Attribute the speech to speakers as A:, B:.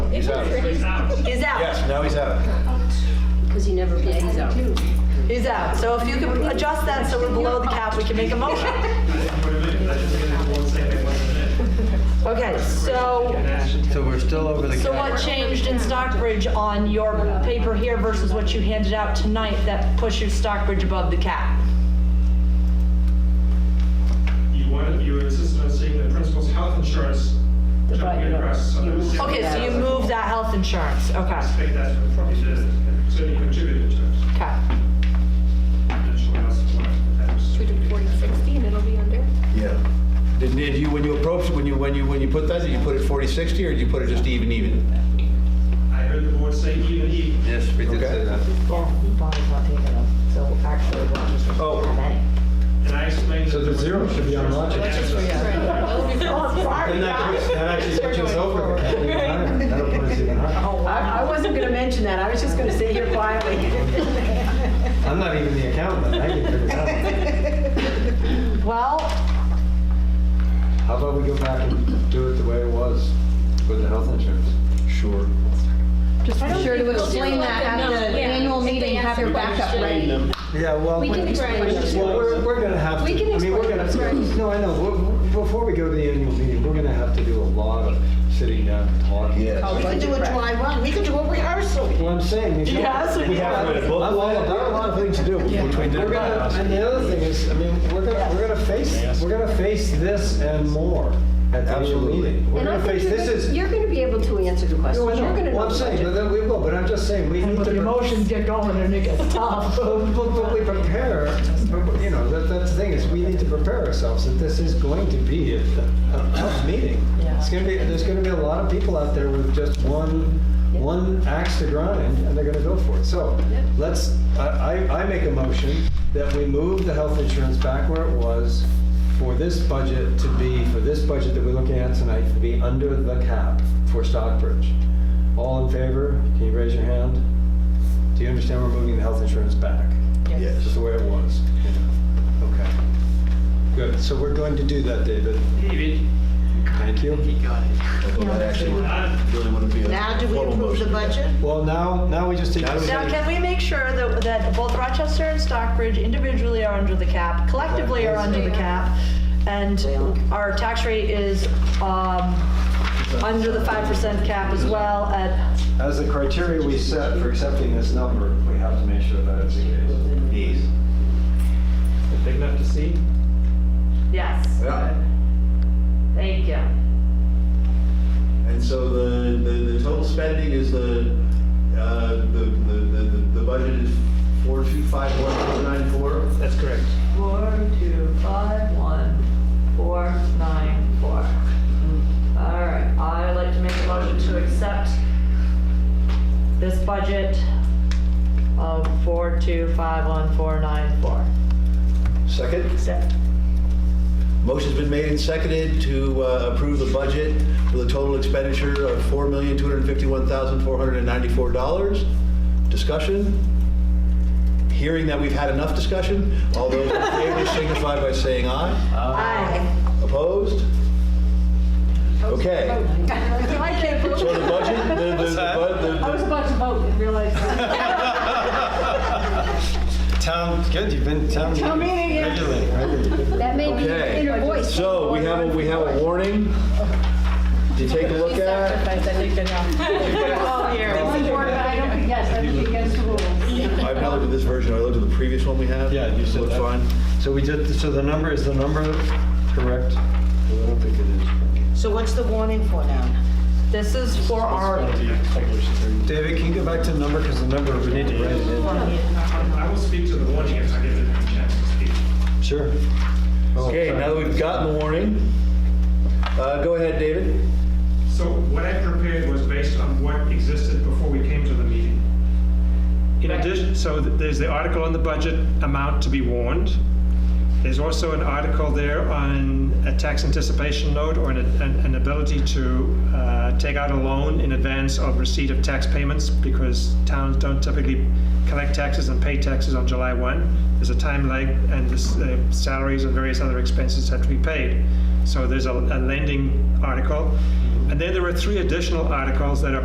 A: out.
B: He's out.
A: Yes, now he's out.
C: Because he never, yeah, he's out.
B: He's out. So if you could adjust that so we're below the cap, we can make a motion. Okay, so,
D: So we're still over the
B: so what
D: cap.
B: changed in Stockbridge on your paper here versus what you handed out tonight that pushes Stockbridge above the cap?
E: You wanted, you insisted on seeing the principal's health insurance.
C: The
E: jumping
C: right, you know,
E: across, so
C: you
E: that was-
C: moved-
B: Okay, so you moved that health insurance. Okay,
E: I think that's what probably did, it, and certainly contributed to it.
B: okay.
E: I'm not sure what else it was, but that was-
F: Should we do 40, 60, and it'll be under?
A: Yeah. Did, did you, when you approached, when you, when you, when you put that, did you put it 40, 60, or did you put it just even, even?
E: I heard the board say even, even.
D: Yes, we did say
A: Okay.
D: that.
C: Yeah, he bought his lot taken up, so actually, we're just
A: Oh.
C: have any.
E: And I explained.
A: So
E: that
A: the
E: there was
A: zero should be on logic.
E: That's
A: That's
E: just-
C: I, I wasn't gonna mention that, I was just gonna sit here quietly.
D: I'm not even the accountant, I can figure it out.
B: Well,
D: How about we go back and do it the way it was with the health insurance?
A: Sure.
G: Be sure to explain
F: let
G: that
F: them
G: at
F: know.
G: the
F: Yeah.
G: annual meeting, have your backup ready.
D: Yeah, well.
G: We can explain those.
D: Well, we're, we're gonna have to,
F: We can
D: I mean, we're
F: explain
D: gonna,
F: those, right.
D: no, I know, We're- before we go to the annual meeting, we're gonna have to do a lot of sitting down and talking.
G: We can do a dry run, we can do a rehearsal.
D: Well, I'm saying. is-
B: Yes, we have
D: I'm all about-
A: things to do between
D: We're gonna, and the other thing is, I mean, we're gonna, we're gonna face, we're gonna face this and more at the annual
A: Absolutely.
D: meeting. We're
C: And I
D: gonna
C: think
D: face,
C: you're
D: this
C: gonna-
D: is.
C: You're gonna be able to answer the
D: No, I
C: questions, you're gonna
D: know,
C: know.
D: well, I'm
C: the
D: saying, but
C: budget.
D: then we will, but I'm just saying, we need to.
B: the
D: pre-
B: emotions get going and it gets tough.
D: But, but- but we prepare, but, you know, that, that's the thing, is we need to prepare ourselves, that this is going to be a, a tough meeting. It's gonna be, there's gonna be a lot of people out there with just one, one axe to grind, and they're gonna go for it. So, let's, I, I, I make a motion that we move the health insurance back where it was for this budget to be, for this budget that we're looking at tonight, to be under the cap for Stockbridge. All in favor, can you raise your hand? Do you understand we're moving the health insurance back? Just
A: Yes.
D: the way it was? Okay. Good, so we're going to do that, David.
E: David,
D: Thank you.
A: Although that actually would
E: I-
A: really wouldn't be a
G: Now, do we
A: formal
G: approve the
A: motion.
G: budget?
D: Well, now, now we just take.
A: Now we-
B: Now, can we make sure that, that both Rochester and Stockbridge individually are under the cap, collectively are under the cap, and our tax rate is, um, under the five percent cap as well at,
D: As the criteria we set for accepting this number, we have to make sure that it's the case.
A: Yes.
E: Big enough to see?
B: yes,
A: Yeah.
B: thank you.
A: And so the, the, the total spending is the, uh, the, the, the- the budget is four two five one four nine four?
E: That's correct.
B: Four, two, five, one, four, nine, four. All right, I'd like to make a motion to accept this budget of four, two, five, one, four, nine, four.
A: Second?
B: Accept.
A: Motion's been made and seconded to uh, approve the budget with a total expenditure of $4,251,494. Discussion? Hearing that we've had enough discussion, all those in favor signify by saying aye.
B: Aye.
A: Opposed? Okay. So the budget, the- the- the bu- the- the-
G: about to vote and realized.
D: Town, good, you've been town.
G: Town meeting, yeah.
D: Regularly, regularly.
G: That may be
A: Okay.
G: the inner voice.
A: So we have, a we have a warning to take a look at.
G: One word, but I don't, yes, I think against the rules.
A: I've not looked at this version, I looked at the previous one we had.
D: Yeah, you said
A: Looks
D: that.
A: fine.
D: So we did, so the number, is the number correct? I don't think it
G: So what's the warning for now?
B: This is for our,
D: is. David, can you go back to the number, because the number, we need to write it in.
E: I will speak to the warning if I get a chance to speak.
D: Sure. Oh,
A: Okay, now that we've gotten the warning, uh, go ahead, David.
E: So what I prepared was based on what existed before we came to the meeting. In addition, so th- there's the article on the budget amount to be warned. There's also an article there on a tax anticipation note or an, an an ability to uh, take out a loan in advance of receipt of tax payments because towns don't typically collect taxes and pay taxes on July 1. There's a time lag and this, uh, salaries and various other expenses have to be paid. So there's a, a lending article. And then there are three additional articles that are